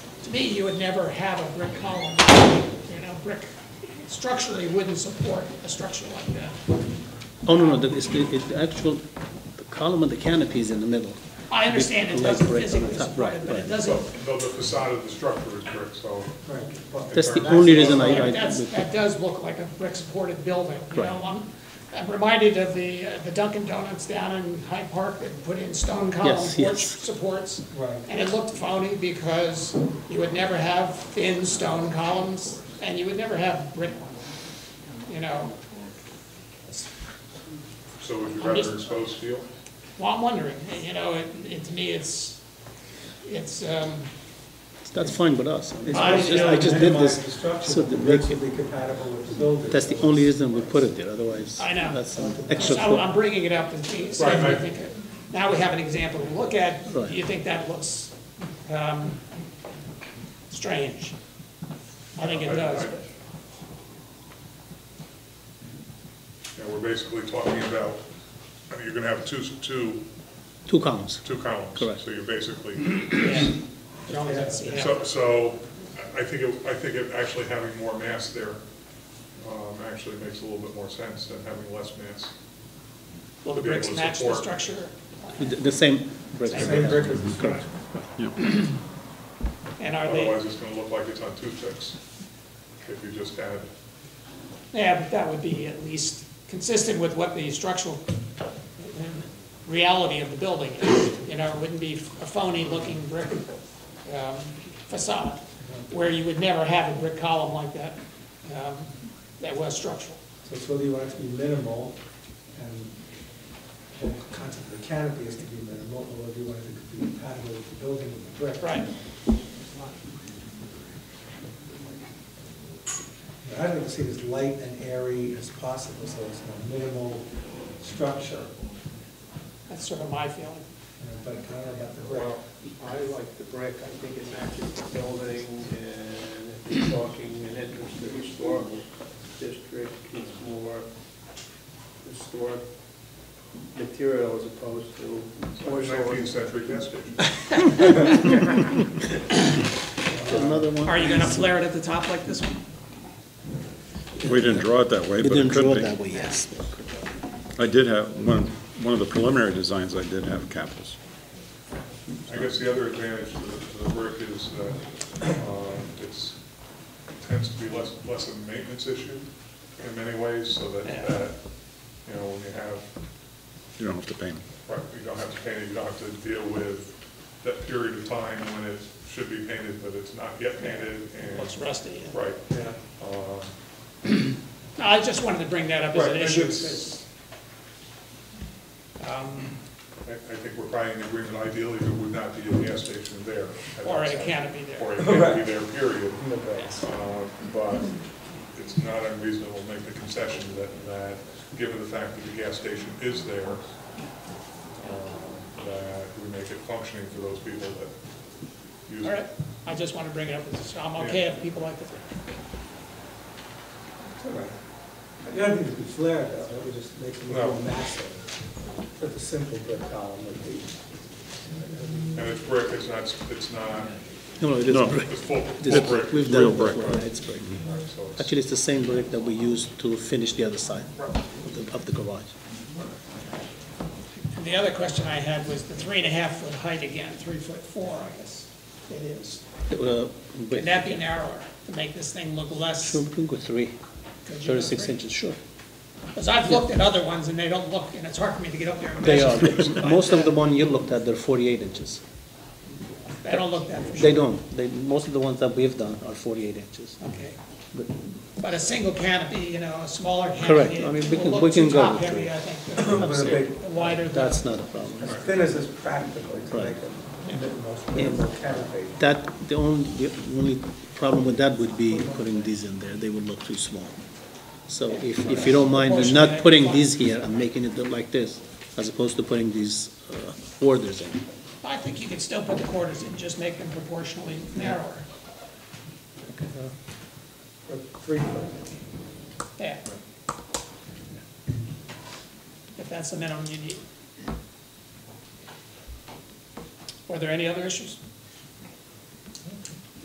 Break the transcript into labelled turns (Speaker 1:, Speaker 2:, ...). Speaker 1: to me, you would never have a brick column. You know, brick structurally wouldn't support a structure like that.
Speaker 2: Oh, no, no, the, it's the, it- the actual, the column and the canopy is in the middle.
Speaker 1: I understand it
Speaker 2: With
Speaker 1: doesn't
Speaker 2: brick on the
Speaker 1: physically
Speaker 2: top,
Speaker 1: support it,
Speaker 2: right,
Speaker 1: but it
Speaker 2: right.
Speaker 1: doesn't,
Speaker 3: But but the facade of the structure is brick, so.
Speaker 2: That's the only reason I, I,
Speaker 1: that's, that does look like a brick-supported building, you
Speaker 2: Right.
Speaker 1: know? I'm- I'm reminded of the, uh, the Dunkin' Donuts down in Hyde Park that put in stone column
Speaker 2: Yes,
Speaker 1: porch
Speaker 2: yes.
Speaker 1: supports. And it looked phony because you would never have thin stone columns, and you would never have brick, you know?
Speaker 3: So would you
Speaker 1: I'm just-
Speaker 3: rather expose steel?
Speaker 1: Well, I'm wondering, you know, it, it, to me, it's, it's, um,
Speaker 2: that's fine with us. It's-
Speaker 4: I
Speaker 2: it's just- I just did this, so
Speaker 4: So
Speaker 2: the
Speaker 4: the
Speaker 2: brick-
Speaker 4: bricks will be compatible with the building.
Speaker 2: that's the only reason we put it there, otherwise,
Speaker 1: I know.
Speaker 2: that's an
Speaker 1: so
Speaker 2: extra.
Speaker 1: I'm
Speaker 2: foot.
Speaker 1: I'm bringing it up and see, see
Speaker 3: Right,
Speaker 1: if we
Speaker 3: right.
Speaker 1: think, it- now we have an example to look at, do
Speaker 2: Right.
Speaker 1: you think that looks, um, strange? I think it does, but-
Speaker 3: Yeah, we're basically talking about, I mean, you're gonna have two, two,
Speaker 2: Two columns.
Speaker 3: two columns.
Speaker 2: Correct.
Speaker 3: So you're basically,
Speaker 1: yeah, as long as it's, you know,
Speaker 3: so, so I- I think, it- I think it actually having more mass there um, actually makes a little bit more sense than having less mass.
Speaker 1: will the
Speaker 3: to be able
Speaker 1: bricks
Speaker 3: to
Speaker 1: match the
Speaker 3: support.
Speaker 1: structure?
Speaker 2: The, the same brick.
Speaker 4: Same brick as the
Speaker 2: Correct.
Speaker 4: structure.
Speaker 1: And are they,
Speaker 3: Otherwise, it's gonna look like it's on toothpicks if you just had,
Speaker 1: yeah, but that would be at least consistent with what the structural um, reality of the building is, you know, it wouldn't be a phony looking brick um, facade, where you would never have a brick column like that, um, that was structural.
Speaker 4: So it's whether you want it to be minimal, and the whole concept of the canopy is to be minimal, or whether you want it to be compatible with the building with the brick.
Speaker 1: Right.
Speaker 4: But I'd like to see it as light and airy as possible, so it's a minimal structure,
Speaker 1: That's sort of my feeling.
Speaker 4: you know, but I don't know about the brick.
Speaker 5: Well, I like the brick, I think it matches the building, and if you're talking an entrance to the historical district, it's more historic material as opposed to
Speaker 3: nineteenth
Speaker 5: porcelain.
Speaker 3: century gas station.
Speaker 2: Another one.
Speaker 1: Are you gonna flare it at the top like this one?
Speaker 6: We didn't draw it that way,
Speaker 2: We
Speaker 6: but
Speaker 2: didn't
Speaker 6: it
Speaker 2: draw
Speaker 6: could
Speaker 2: it that
Speaker 6: be.
Speaker 2: way, yes.
Speaker 6: I did have, one, one of the preliminary designs, I did have capitals.
Speaker 3: I guess the other advantage to the- to the brick is that um, it's, tends to be less, less of a maintenance issue in many ways, so that,
Speaker 1: Yeah.
Speaker 3: that, you know, when you have,
Speaker 6: You don't have to paint them.
Speaker 3: right, you don't have to paint it, you don't have to deal with that period of time when it should be painted, but it's not yet painted,
Speaker 1: Looks
Speaker 3: and,
Speaker 1: rusty.
Speaker 3: right.
Speaker 4: Yeah.
Speaker 3: um,
Speaker 1: No, I just wanted to bring that up as
Speaker 3: Right,
Speaker 1: an
Speaker 3: and
Speaker 1: issue.
Speaker 3: it's-
Speaker 1: because, um,
Speaker 3: I, I think we're probably in agreement, ideally, there would not be a gas station there. at
Speaker 1: Or
Speaker 3: that
Speaker 1: a
Speaker 3: time.
Speaker 1: canopy there.
Speaker 3: Or a canopy there, period.
Speaker 1: Yes.
Speaker 3: Uh, But it's not unreasonable to make the concession that, that, given the fact that the gas station is there, um, that we make it functioning for those people that use
Speaker 1: All right,
Speaker 3: it.
Speaker 1: I just want to bring it up, as- I'm okay if people like it.
Speaker 4: It's all right. I don't think it'd be flared, though, that would just make it look
Speaker 3: No.
Speaker 4: more massive. Put the simple brick column would be,
Speaker 3: And it's brick, it's not, it's not,
Speaker 2: No, no, it is
Speaker 6: No.
Speaker 2: brick.
Speaker 3: it's full,
Speaker 2: This-
Speaker 3: full brick.
Speaker 2: We've done
Speaker 6: Real
Speaker 2: it
Speaker 6: brick.
Speaker 2: before, yeah, it's brick.
Speaker 3: so it's-
Speaker 2: Actually, it's the same brick that we used to finish the other side of the- of the garage.
Speaker 1: And the other question I had was the three and a half foot height again, three foot four, I guess it is.
Speaker 2: Uh,
Speaker 1: Would
Speaker 2: brick.
Speaker 1: that be narrower to make this thing look less?
Speaker 2: Sure, we can go three,
Speaker 1: Could you go
Speaker 2: thirty-six
Speaker 1: three?
Speaker 2: inches, sure.
Speaker 1: Because I've looked at other ones and they don't look, and it's hard for me to get up there and
Speaker 2: They
Speaker 1: measure.
Speaker 2: are, most of the one you looked at, they're forty-eight inches.
Speaker 1: They don't look that for sure.
Speaker 2: They don't, they, most of the ones that we've done are forty-eight inches.
Speaker 1: Okay.
Speaker 2: But-
Speaker 1: But a single canopy, you know, a smaller canopy.
Speaker 2: Correct. I mean, we
Speaker 1: will
Speaker 2: can-
Speaker 1: look
Speaker 2: we can
Speaker 1: too
Speaker 2: go
Speaker 1: top
Speaker 2: with
Speaker 1: heavy,
Speaker 2: three.
Speaker 1: I think,
Speaker 4: with a big,
Speaker 1: the wider the.
Speaker 2: That's not a problem.
Speaker 4: as thin as is practical to
Speaker 2: Right.
Speaker 4: make a minimal- minimal canopy.
Speaker 2: That, the only, the only problem with that would be putting these in there, they would look too small. So if, if you don't mind, we're not putting these here and making it look like this, as opposed to putting these uh, orders in.
Speaker 1: I think you could still put the quarters in, just make them proportionally narrower.
Speaker 4: Or three foot.
Speaker 1: Yeah. If that's the minimum you need. Were there any other issues?